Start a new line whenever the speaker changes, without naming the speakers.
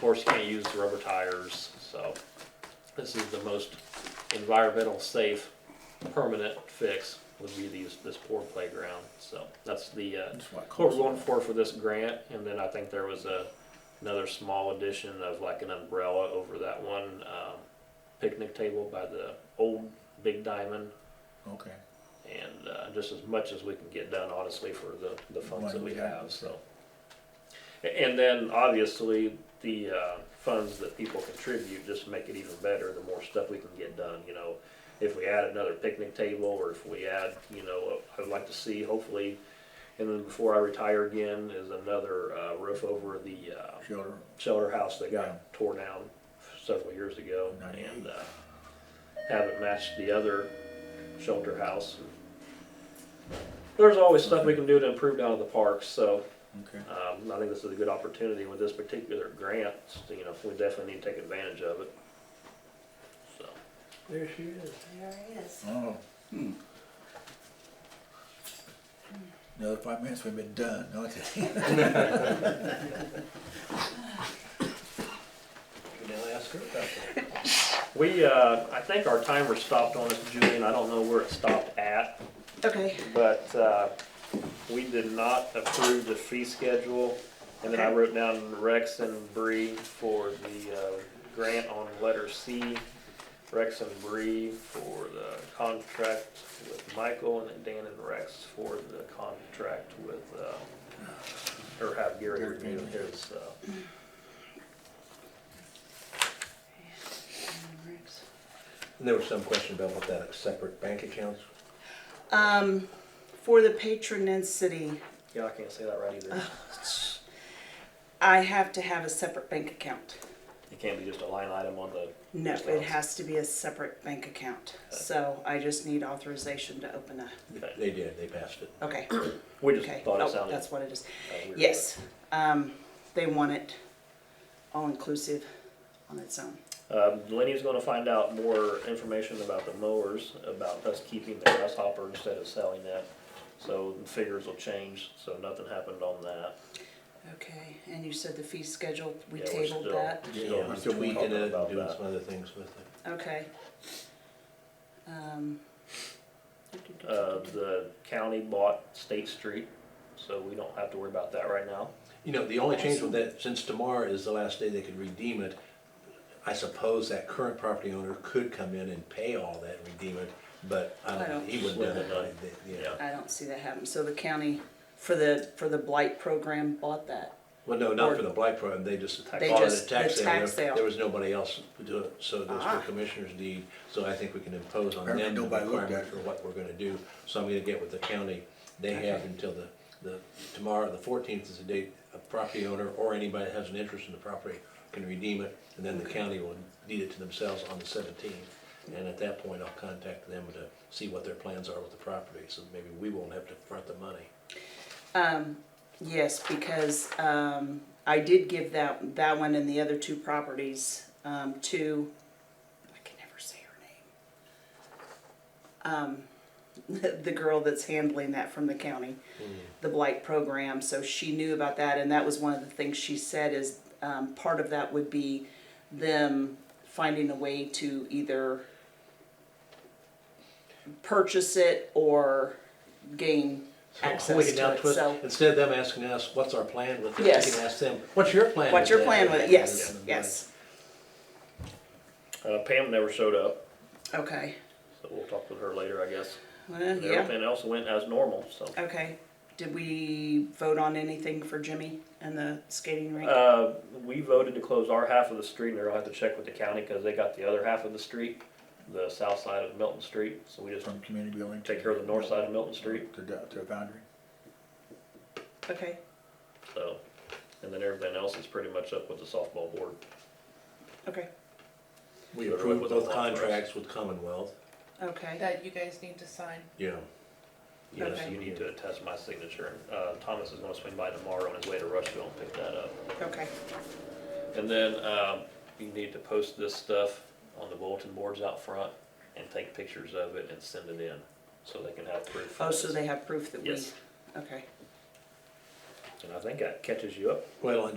course, you can't use the rubber tires, so this is the most environmental safe permanent fix would be these, this poor playground, so that's the, uh,
That's what it
what we're
costs.
going for for this grant, and then I think there was a, another small addition of like an umbrella over that one, um, picnic table by the old Big Diamond,
Okay.
and, uh, just as much as we can get done honestly for the, the funds that we
Money, yeah.
have, so. A- And then obviously, the, uh, funds that people contribute just make it even better, the more stuff we can get done, you know. If we add another picnic table, or if we add, you know, I would like to see hopefully, and then before I retire again, is another, uh, roof over the, uh,
Shelter.
shelter house that
Yeah.
got tore down several years ago
Ninety-eight.
and uh, haven't matched the other shelter house. There's always stuff we can do to improve down at the parks, so
Okay.
um, I think this is a good opportunity with this particular grant. You know, we definitely need to take advantage of it. So,
There she is.
There it is.
Oh.
Hmm.
Another five minutes, we've been done. No, it's-
Could I ask her about that?
we, uh, I think our timer stopped on us, Julian. I don't know where it stopped at,
Okay.
but uh, we did not approve the fee schedule. And then I
Okay.
wrote down Rex and Bree for the uh, grant on letter C. Rex and Bree for the contract with Michael, and then Dan and Rex for the contract with, uh, or have Gary
Gary
review
Payton.
his. uh,
And there was some question about what that separate bank accounts.
Um, for the patronicity,
Yeah, I can't say that right either.
Ah. I have to have a separate bank account.
It can't be just a line item on the,
No, it has to be a separate bank account. So I just need authorization to open a,
They did, they passed it.
okay,
we just
okay.
thought it
Oh,
sounded.
that's what it is.
uh, weird, but-
Yes, um, they want it all-inclusive on its own.
Um, Lenny's gonna find out more information about the mowers, about us keeping the grasshopper instead of selling that. So the figures will change, so nothing happened on that.
Okay, and you said the fee schedule, we
Yeah, we're
tabled
still-
that?
Yeah, we're still
talking
weakening it,
about
doing
that.
some other things with it.
Okay. Um,
Uh, the county bought State Street, so we don't have to worry about that right now.
You know, the only change with that, since tomorrow is the last day they could redeem it, I suppose that current property owner could come in and pay all that, and redeem it, but I
I don't-
don't, he wouldn't do
Wouldn't
that,
know.
They- yeah.
Yeah.
I don't see that happen. So the county, for the, for the blight program, bought that.
Well, no, not for the blight program, they just bought
They
it at
just-
a tax
the
sale,
tax
There-
sale.
there was nobody else to do it, so it was
Ah.
for commissioner's deed, so I think we can impose on them
Apparently
the
nobody looked at
requirement
it.
for what we're gonna do, so I'm gonna get with the county, they have until the, the, tomorrow, the fourteenth is the date, a property owner or anybody that has an interest in the property can redeem it, and then the county will deed it to themselves on the seventeenth, and at that point, I'll contact them to see what their plans are with the property, so maybe we won't have to front the money.
Yes, because um, I did give that, that one and the other two properties um, to, I can never say her name. Um, The girl that's handling that from the county, the blight program, so she knew about that. And that was one of the things she said is um, part of that would be them finding a way to either purchase it or gain
So we
access
can
to
now
it,
twist-
so.
Instead of them asking us, what's our plan with this,
Yes.
we can ask them, what's your plan?
What's
with
your
that?"
plan with it? Yes, yes.
Uh, Pam never showed up,
Okay.
so we'll talk with her later, I guess.
Well,
And
yeah.
everything else went as normal, so.
Okay. Did we vote on anything for Jimmy and the skating rink?
Uh, we voted to close our half of the street, and they're gonna have to check with the county, cause they got the other half of the street, the south side of Milton Street, so we just
From community building. to-
take care of the north side of Milton Street,
To, the- to the boundary.
Okay.
so. And then everything else is pretty much up with the softball board.
Okay.
We
Sort of
approved
what the
both
law was.
contracts with Commonwealth,
Okay.
that you guys need to sign.
yeah.
Yes,
Okay.
you need to attest my signature, and, uh, Thomas is gonna swing by tomorrow on his way to Rushville and pick that up.
Okay.
And then, um, you need to post this stuff on the bulletin boards out front and take pictures of it and send it in, so they can have proof.
Oh, so they have proof that we,
Yes.
okay.
And I think that catches you up
Well,